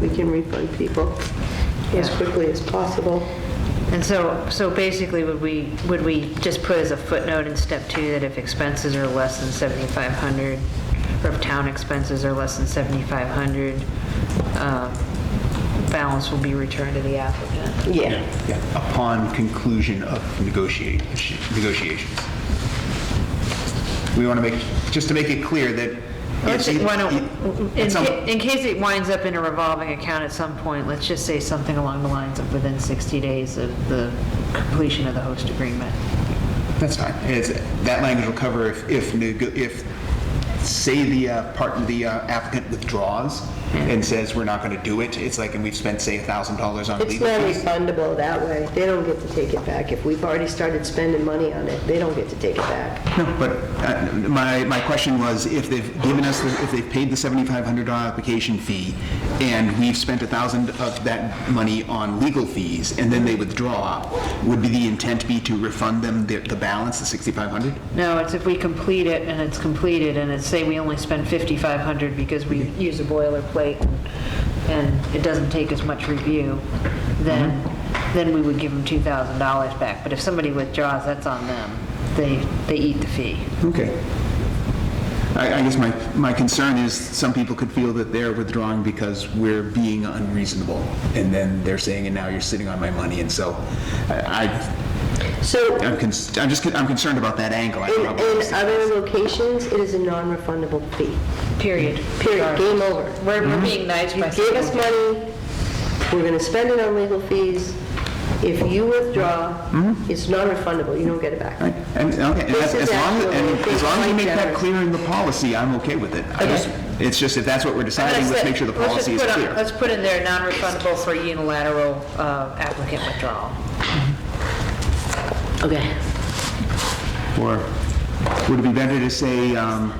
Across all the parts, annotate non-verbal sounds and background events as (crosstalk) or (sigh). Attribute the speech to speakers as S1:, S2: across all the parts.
S1: we can refund people as
S2: Yeah.
S1: quickly as possible.
S2: And so, so basically, would we, would we just put as a footnote in step two that if expenses are less than 7,500, or if town expenses are less than 7,500, um, balance will be returned to the applicant?
S1: Yeah.
S3: Yeah, upon conclusion of negotiate- negotiations. We want to make, just to make it clear that.
S2: Let's,
S3: yes,
S2: say-
S3: you-
S2: why don't,
S3: you-
S2: in
S3: at some-
S2: ca- in case it winds up in a revolving account at some point, let's just say something along the lines of within 60 days of the completion of the host agreement.
S3: That's fine. It's, that language will cover if, if, nego- if, say the uh, part, the uh, applicant withdraws and says, we're not going to do it, it's like, and we've spent, say, $1,000 on
S1: It's
S3: legal
S1: not
S3: fees.
S1: refundable that way. They don't get to take it back. If we've already started spending money on it, they don't get to take it back.
S3: No, but uh, my, my question was, if they've given us, the if they've paid the $7,500 application fee, and we've spent 1,000 of that money on legal fees, and then they withdraw, would be the intent be to refund them the the balance, the 6,500?
S2: No, it's if we complete it and it's completed and it's, say we only spend 5,500 because we use a boilerplate and it doesn't take as much review, then, then we would give them $2,000 back. But if somebody withdraws, that's on them. They, they eat the fee.
S3: Okay. I, I guess my, my concern is some people could feel that they're withdrawing because we're being unreasonable. And then they're saying, and now you're sitting on my money. And so I,
S1: So
S3: I- I'm, cons- I'm just, con- I'm concerned about that angle. I
S1: in,
S3: probably
S1: in other locations, it is a non-refundable fee.
S2: Period.
S1: Period, game over.
S2: We're,
S3: Mm-hmm.
S2: we're being nice
S1: You
S2: by
S1: gave us
S2: saying-
S1: money, we're gonna spend it on legal fees. If you withdraw, it's non-refundable, you don't get it back.
S3: Mm-hmm. Right. And, okay, and
S1: This
S3: as,
S1: is
S3: as long,
S1: actually
S3: and as long as you
S1: quite
S3: make that
S1: generous.
S3: clear in the policy, I'm okay with it. I
S1: Okay.
S3: just- It's just, if that's what we're deciding, let's make sure the
S2: Let's just
S3: policy is
S2: put on-
S3: clear.
S2: Let's put in there, non-refundable for unilateral uh, applicant withdrawal.
S1: Okay.
S3: Or would it be better to say, um,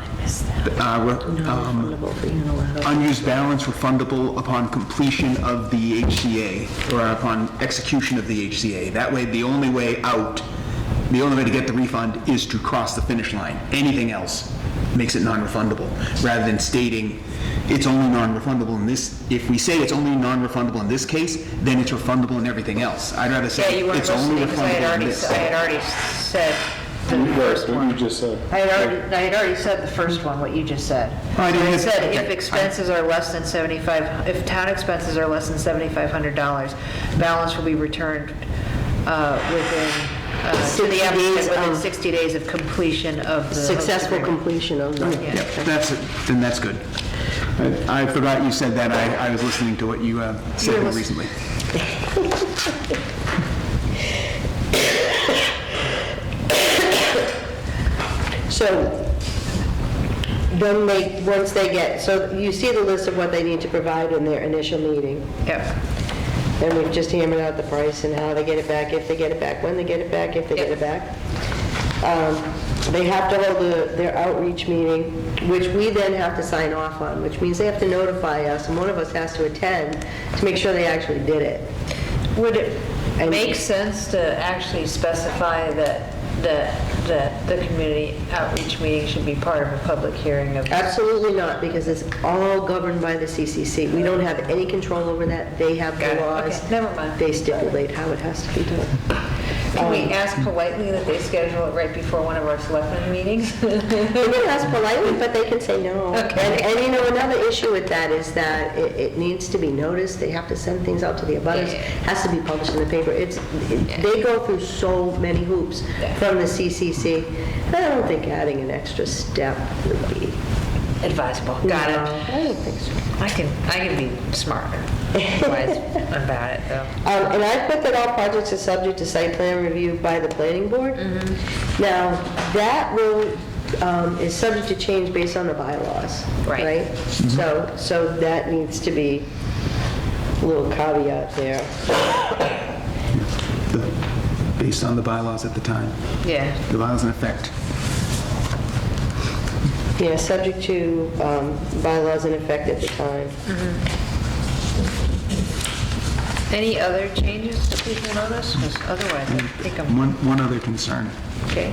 S3: uh, re- um,
S1: Non-refundable for unilateral.
S3: unused balance refundable upon completion of the HCA, or upon execution of the HCA. That way, the only way out, the only way to get the refund is to cross the finish line. Anything else makes it non-refundable, rather than stating, it's only non-refundable in this, if we say it's only non-refundable in this case, then it's refundable in everything else. I'd rather
S2: Yeah,
S3: say,
S2: you weren't
S3: it's only
S2: listening, because I
S3: refundable in
S2: had already,
S3: this.
S2: I had already said the first
S4: What you
S2: one.
S4: just said.
S2: I had already, I had already said the first one, what you just said.
S3: Oh, I didn't
S2: I
S3: hear-
S2: said
S3: okay,
S2: if
S3: I-
S2: expenses are less than 75, if town expenses are less than $7,500, balance will be returned uh, within, uh, to
S1: 60
S2: the applicant
S1: days
S2: within
S1: of-
S2: 60 days of completion of the. host
S1: Successful
S2: agreement.
S1: completion of the,
S3: Yep, that's, it. then that's good. I I forgot you said that, I, I was listening to what you uh, said
S1: lis-
S3: recently.
S1: so then they, once they get, so you see the list of what they need to provide in their initial meeting.
S2: Yep.
S1: And we've just hammered out the price and how they get it back, if they get it back, when they get it back, if they get it back. Um, They have to hold the- their outreach meeting, which we then have to sign off on, which means they have to notify us, and one of us has to attend to make sure they actually did it.
S2: Would it
S1: And-
S2: make sense to actually specify that, that, that the community outreach meeting should be part of a public hearing of?
S1: Absolutely not, because it's all governed by the CCC. We don't have any control over that. They have
S2: Got
S1: the
S2: it.
S1: laws.
S2: Okay, never mind.
S1: They stipulate how it has to be
S2: (laughs)
S1: done.
S2: Can we ask politely that they schedule it right before one of our selectmen meetings? (laughs)
S1: They can ask politely, but they can say no.
S2: Okay.
S1: And, and you know, another issue with that is that it, it needs to be noticed, they have to send things out to the abutters,
S2: Yeah.
S1: has to be published in the paper, it's, it- they go through so many hoops
S2: Yeah.
S1: from the CCC, I don't think adding an extra step would be.
S2: Advisable,
S1: No,
S2: got it.
S1: I don't think so.
S2: I can, I can be smart, wise about it, though.
S1: Um, and I put that all projects are subject to site plan review by the planning board. Now, that will, um, is subject to change based on the bylaws,
S2: Right.
S1: right? So, so that needs to be a little caveat there.
S3: the- based on the bylaws at the time,
S2: Yeah,
S3: the bylaws in effect.
S1: Yeah, subject to, um, bylaws in effect at the time.
S2: any other changes that we can notice, because otherwise I think I'm,
S3: One, one other concern.
S2: okay.